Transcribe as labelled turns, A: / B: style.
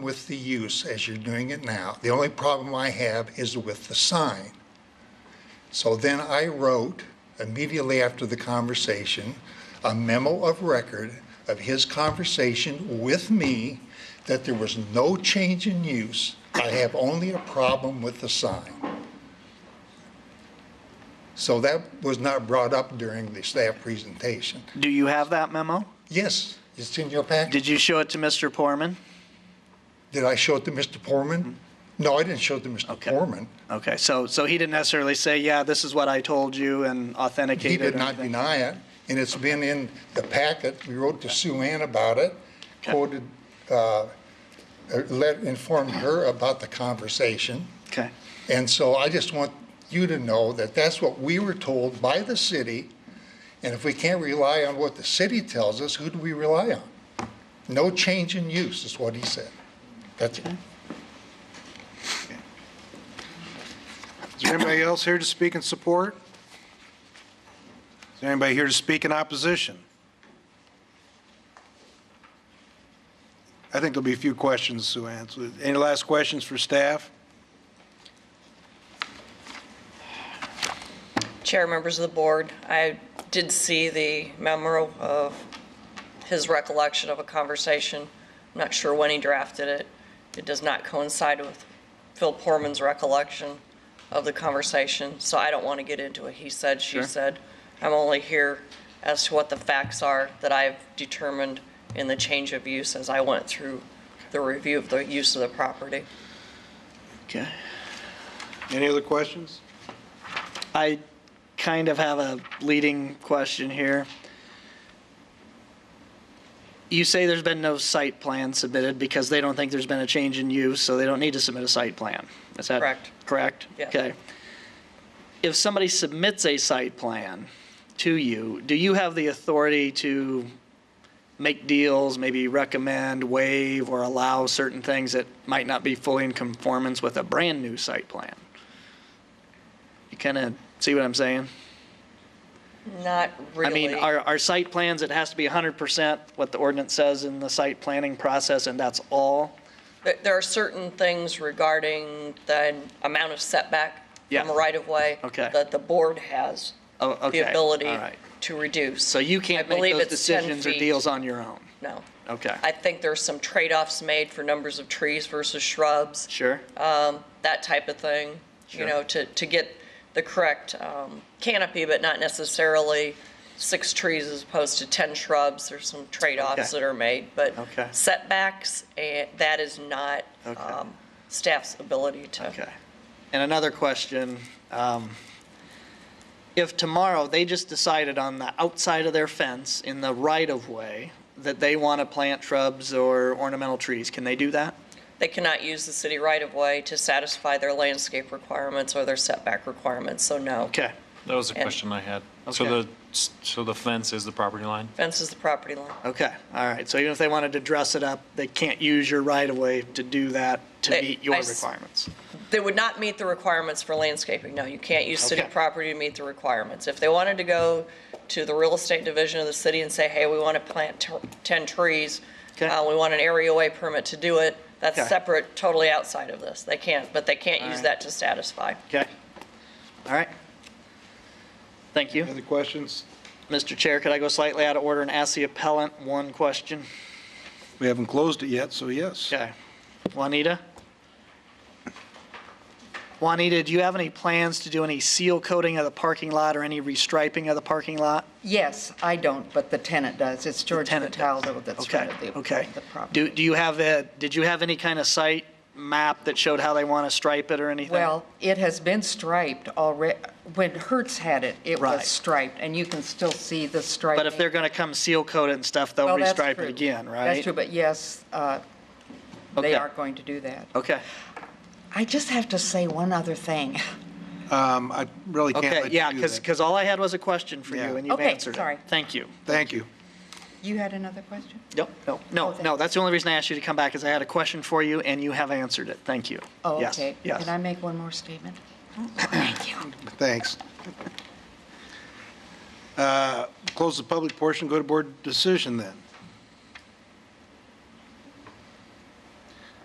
A: with the use as you're doing it now. The only problem I have is with the sign. So then I wrote, immediately after the conversation, a memo of record of his conversation with me that there was no change in use. I have only a problem with the sign. So that was not brought up during the staff presentation.
B: Do you have that memo?
A: Yes, it's in your packet.
B: Did you show it to Mr. Porman?
A: Did I show it to Mr. Porman? No, I didn't show it to Mr.
B: Mm-hmm. Okay.
A: Porman.
B: Okay, so, so he didn't necessarily say, yeah, this is what I told you and
A: He
B: authenticate it
A: did
B: or
A: not
B: anything?
A: deny it, and it's been in the packet. We wrote to Sue Ann about it, quoted, uh, uh, let, informed her about the conversation.
B: Okay,
A: And so I just want you to know that that's what we were told by the city, and if we can't rely on what the city tells us, who do we rely on? No change in use is what he said. That's it.
C: Is there anybody else here to speak in support? Is there anybody here to speak in opposition? I think there'll be a few questions, Sue Ann. So, Any last questions for staff?
D: Chair, members of the board, I did see the memo of his recollection of a conversation. I'm not sure when he drafted it. It does not coincide with Phil Porman's recollection of the conversation, so I don't want to get into it. He said, she said. I'm only here as to what the facts are that I've determined in the change of use as I went through the review of the use of the property.
B: okay.
C: Any other questions?
B: I kind of have a leading question here. You say there's been no site plan submitted because they don't think there's been a change in use, so they don't need to submit a site plan. Is that?
D: Correct.
B: Correct?
D: Yes.
B: Okay. If somebody submits a site plan to you, do you have the authority to make deals, maybe recommend, waive, or allow certain things that might not be fully in conformance with a brand-new site plan? You kind of see what I'm saying?
D: Not
B: I
D: really.
B: mean, our, our site plans, it has to be 100% what the ordinance says in the site planning process, and that's all?
D: There- There are certain things regarding the amount of setback
B: Yeah.
D: from a right-of-way
B: Okay.
D: that the board has
B: Oh, okay,
D: the ability
B: all right.
D: to reduce.
B: So you can't
D: I
B: make
D: believe
B: those
D: it's 10
B: decisions or
D: feet.
B: deals on your own?
D: No.
B: Okay,
D: I think there's some trade-offs made for numbers of trees versus shrubs,
B: sure?
D: that type of thing, you
B: Sure.
D: know, to, to get the correct um, canopy, but not necessarily six trees as opposed to 10 shrubs. There's some trade-offs
B: Okay.
D: that are made, but
B: Okay.
D: setbacks, eh, that is not
B: Okay.
D: um, staff's ability to.
B: Okay. And another question, um, if tomorrow they just decided on the outside of their fence in the right-of-way that they want to plant shrubs or ornamental trees, can they do that?
D: They cannot use the city right-of-way to satisfy their landscape requirements or their setback requirements, so no.
B: Okay,
E: That was a
D: And-
E: question I had. So
B: Okay.
E: the, so the fence is the property line?
D: Fence is the property line.
B: okay, all right. So even if they wanted to dress it up, they can't use your right-of-way to do that to
D: They-
B: meet your
D: I s-
B: requirements?
D: They would not meet the requirements for landscaping, no. You can't use city
B: Okay.
D: property to meet the requirements. If they wanted to go to the real estate division of the city and say, hey, we want to plant t- 10 trees,
B: Okay.
D: uh, we want an areaway permit to do it, that's
B: Okay.
D: separate, totally outside of this. They can't, but they can't use
B: Alright.
D: that to satisfy.
B: Okay, all right. Thank you.
C: Any other questions?
B: Mr. Chair, could I go slightly out of order and ask the appellant one question?
C: We haven't closed it yet, so yes.
B: Okay. Juanita? Juanita, do you have any plans to do any seal coating of the parking lot or any restriping of the parking lot?
F: Yes, I don't, but the tenant does. It's George
B: tenant does.
F: Cataldo that's
B: Okay,
F: rented the
B: okay.
F: the
B: Do,
F: property.
B: do you have a, did you have any kind of site map that showed how they want to stripe it or anything?
F: Well, it has been striped already. When Hertz had it, it
B: Right.
F: was striped, and you can still see the striping.
B: But if they're going to come seal coat it and stuff, they'll
F: Well, that's
B: restripe it
F: true.
B: again, right?
F: That's true, but yes, uh,
B: Okay.
F: they are going to do that.
B: Okay,
F: I just have to say one other thing.
C: Um, I really can't
B: okay,
C: let
B: yeah,
C: you do
B: because,
C: that.
B: because all I had was a question for
C: Yeah.
B: you and you've
F: Okay,
B: answered it.
F: sorry.
B: Thank you.
C: Thank you.
F: You had another question?
B: Nope, no, no,
F: Okay.
B: no, that's the only reason I asked you to come back, is I had a question for you, and you have answered it, thank you.
F: Oh,
B: Yes,
F: okay.
B: Yes,
F: Can I make one more statement? Thank you.
C: Thanks. Uh, Close the public portion, go to board decision then.